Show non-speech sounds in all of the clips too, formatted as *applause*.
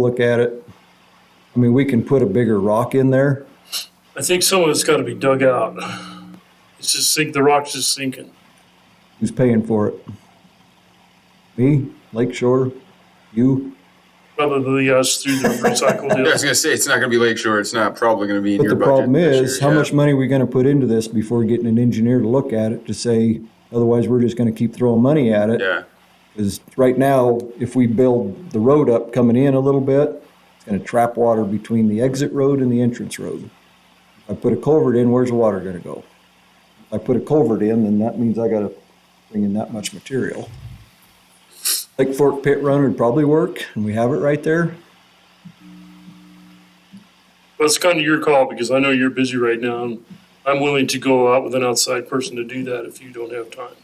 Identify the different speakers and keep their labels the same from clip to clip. Speaker 1: look at it. I mean, we can put a bigger rock in there.
Speaker 2: I think some of it's gotta be dug out. It's just sink, the rock's just sinking.
Speaker 1: Who's paying for it? Me, Lakeshore, you?
Speaker 2: Probably us through the recycle
Speaker 3: Yeah, I
Speaker 2: deal.
Speaker 3: was gonna say it's not gonna be Lakeshore. It's not probably gonna be in
Speaker 1: But
Speaker 3: your
Speaker 1: the
Speaker 3: budget.
Speaker 1: problem
Speaker 3: this
Speaker 1: is, how
Speaker 3: year, yeah.
Speaker 1: much money are we gonna put into this before getting an engineer to look at it to say, otherwise we're just gonna keep throwing money at it?
Speaker 3: Yeah,
Speaker 1: Because right now, if we build the road up coming in a little bit, it's gonna trap water between the exit road and the entrance road. If I put a culvert in, where's the water gonna go? If I put a culvert in, then that means I gotta bring in that much material. Lake Fork Pit Run would probably work, and we have it right there.
Speaker 2: That's kind of your call because I know you're busy right now. and I'm willing to go out with an outside person to do that if you don't have time.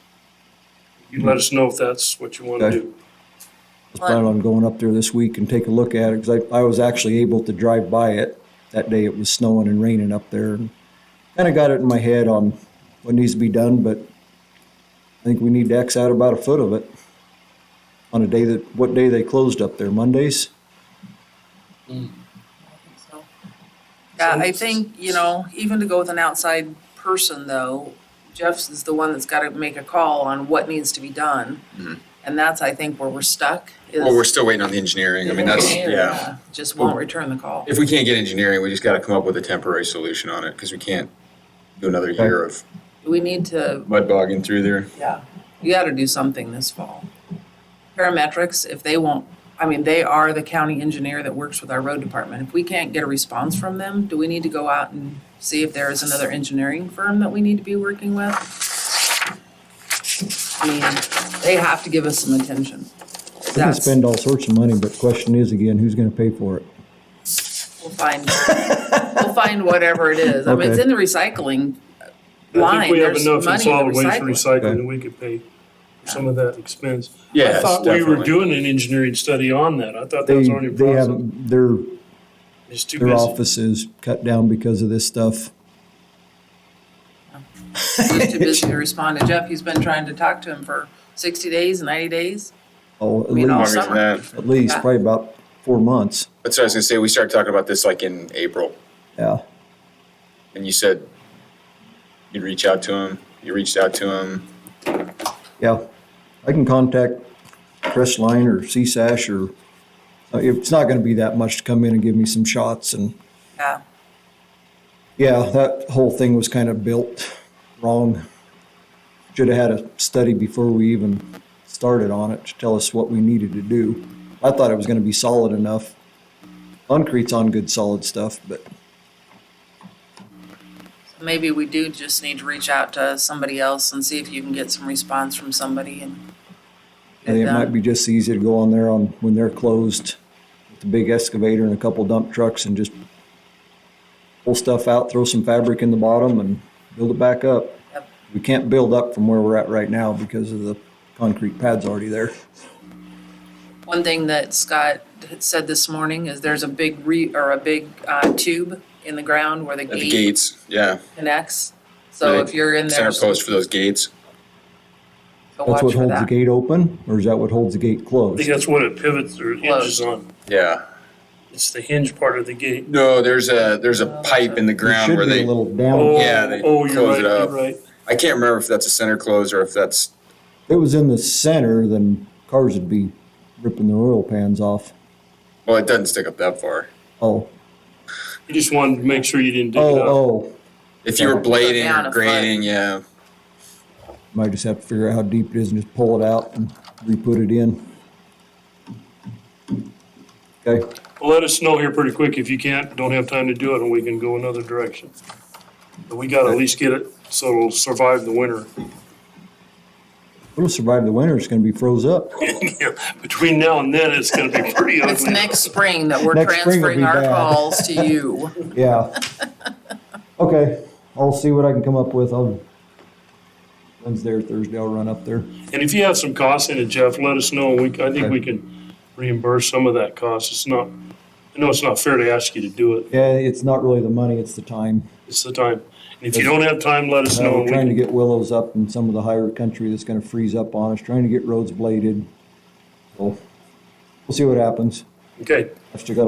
Speaker 2: You let us know if that's what you want to
Speaker 1: Okay.
Speaker 2: do.
Speaker 1: I was planning on going up there this week and take a look at it, because I, I was actually able to drive by it. That day it was snowing and raining up there, and kind of got it in my head on what needs to be done, but I think we need to X out about a foot of it. On a day that, what day they closed up there, Mondays?
Speaker 4: So, Yeah, I think, you know, even to go with an outside person though, Jeff's is the one that's gotta make a call on what needs to be done. And that's, I think, where we're stuck is.
Speaker 3: well, Mm-hmm. we're still waiting on the engineering. I mean, that's yeah.
Speaker 4: Just won't return the call.
Speaker 3: If we can't get engineering, we just got to come up with a temporary solution on it because we can't do another year of
Speaker 4: We need to,
Speaker 3: mud bogging through there.
Speaker 4: yeah, you gotta do something this fall. Parametrics, if they won't, I mean, they are the county engineer that works with our road department. If we can't get a response from them, do we need to go out and see if there is another engineering firm that we need to be working with? I mean, they have to give us some attention.
Speaker 1: We can
Speaker 4: That's, we'll
Speaker 1: spend all sorts of money, but the question is again, who's gonna pay for it?
Speaker 4: find, we'll find whatever it is. I mean, it's
Speaker 1: Okay.
Speaker 4: in the recycling
Speaker 2: I
Speaker 4: line,
Speaker 2: think we have
Speaker 4: there's
Speaker 2: enough in
Speaker 4: money in
Speaker 2: solid
Speaker 4: the
Speaker 2: waste
Speaker 4: recycling.
Speaker 2: recycling that we could pay for some of that expense.
Speaker 3: Yes,
Speaker 2: I thought we were
Speaker 3: definitely.
Speaker 2: doing an engineering study on that. I thought that
Speaker 1: They,
Speaker 2: was already
Speaker 1: they
Speaker 2: processed.
Speaker 1: haven't, their,
Speaker 2: It's too
Speaker 1: their
Speaker 2: busy.
Speaker 1: office is cut down because of this stuff.
Speaker 4: He's too busy to respond to Jeff. He's been trying to talk to him for sixty days, ninety days.
Speaker 1: Oh, at
Speaker 4: You know,
Speaker 1: least,
Speaker 3: Longer than
Speaker 4: summer.
Speaker 3: that.
Speaker 1: at least,
Speaker 4: Yeah.
Speaker 1: probably about four months,
Speaker 3: That's what I was gonna say. We started talking about this like in April,
Speaker 1: yeah.
Speaker 3: and you said you'd reach out to him. You reached out to him.
Speaker 1: Yeah, I can contact Crestline or CSASH or, uh, it's not gonna be that much to come in and give me some shots and,
Speaker 4: Yeah,
Speaker 1: yeah, that whole thing was kind of built wrong. Should have had a study before we even started on it to tell us what we needed to do. I thought it was gonna be solid enough. Concrete's on good solid stuff, but
Speaker 4: maybe we do just need to reach out to somebody else and see if you can get some response from somebody and. uh,
Speaker 1: I think it might be just easier to go on there on, when they're closed, with the big excavator and a couple dump trucks and just pull stuff out, throw some fabric in the bottom and build it back up.
Speaker 4: Yep.
Speaker 1: We can't build up from where we're at right now because of the concrete pads already there.
Speaker 4: One thing that Scott had said this morning is there's a big re, or a big, uh, tube in the ground where the
Speaker 3: At the
Speaker 4: gate
Speaker 3: gates, yeah.
Speaker 4: connects. So if you're in there,
Speaker 3: center
Speaker 4: so
Speaker 3: post for those gates.
Speaker 1: That's
Speaker 4: watch
Speaker 1: what
Speaker 4: for
Speaker 1: holds the
Speaker 4: that.
Speaker 1: gate open, or is that what holds the gate
Speaker 2: I think
Speaker 1: closed?
Speaker 2: that's what it pivots or hinges on.
Speaker 3: Yeah.
Speaker 2: It's the hinge part of the gate.
Speaker 3: No, there's a there's a pipe in the
Speaker 1: It
Speaker 3: ground
Speaker 1: should
Speaker 3: where
Speaker 1: be
Speaker 3: they.
Speaker 1: a little
Speaker 2: Oh,
Speaker 1: down.
Speaker 3: Yeah, they
Speaker 2: oh, you're
Speaker 3: close
Speaker 2: right,
Speaker 3: it
Speaker 2: you're
Speaker 3: up.
Speaker 2: right.
Speaker 3: I can't remember if that's a center close or if that's
Speaker 1: If it was in the center, then cars would be ripping their oil pans off.
Speaker 3: well, it doesn't stick up that far.
Speaker 1: Oh,
Speaker 2: You just wanted to make sure you didn't dig it up.
Speaker 1: oh, oh.
Speaker 3: If you were
Speaker 1: Yeah.
Speaker 3: blading
Speaker 4: Down a
Speaker 3: or
Speaker 4: foot.
Speaker 3: grading, yeah,
Speaker 1: Might just have to figure out how deep it is and just pull it out and re-put it in. Okay,
Speaker 2: Well, Let us know here pretty quick. If you can't, don't have time to do it, and we can go another direction. But we gotta at least get it so it'll survive the winter. *laughs*
Speaker 1: it'll survive the winter, it's gonna be froze up.
Speaker 2: Between now and then, it's gonna be
Speaker 3: *laughs*
Speaker 2: pretty ugly.
Speaker 4: It's next spring that we're
Speaker 1: Next spring will
Speaker 4: transferring
Speaker 1: be
Speaker 4: our
Speaker 1: bad.
Speaker 4: calls
Speaker 1: *laughs*
Speaker 4: to you.
Speaker 1: Yeah. Okay, I'll see what I can come up with, I'll, Wednesday or Thursday, I'll run up there.
Speaker 2: And if you have some costs in it, Jeff, let us know. We, I think we can reimburse some of that cost. It's not, I know it's not fair to ask you to do it.
Speaker 1: Yeah, it's not really the money, it's the time.
Speaker 2: It's the time. And if you don't have time, let us
Speaker 1: Uh,
Speaker 2: know.
Speaker 1: We're
Speaker 2: We
Speaker 1: trying to
Speaker 2: can-
Speaker 1: get willows up in some of the higher country that's gonna freeze up on us, trying to get roads bladed. Well, We'll see what happens.
Speaker 2: Okay.
Speaker 1: I've still got a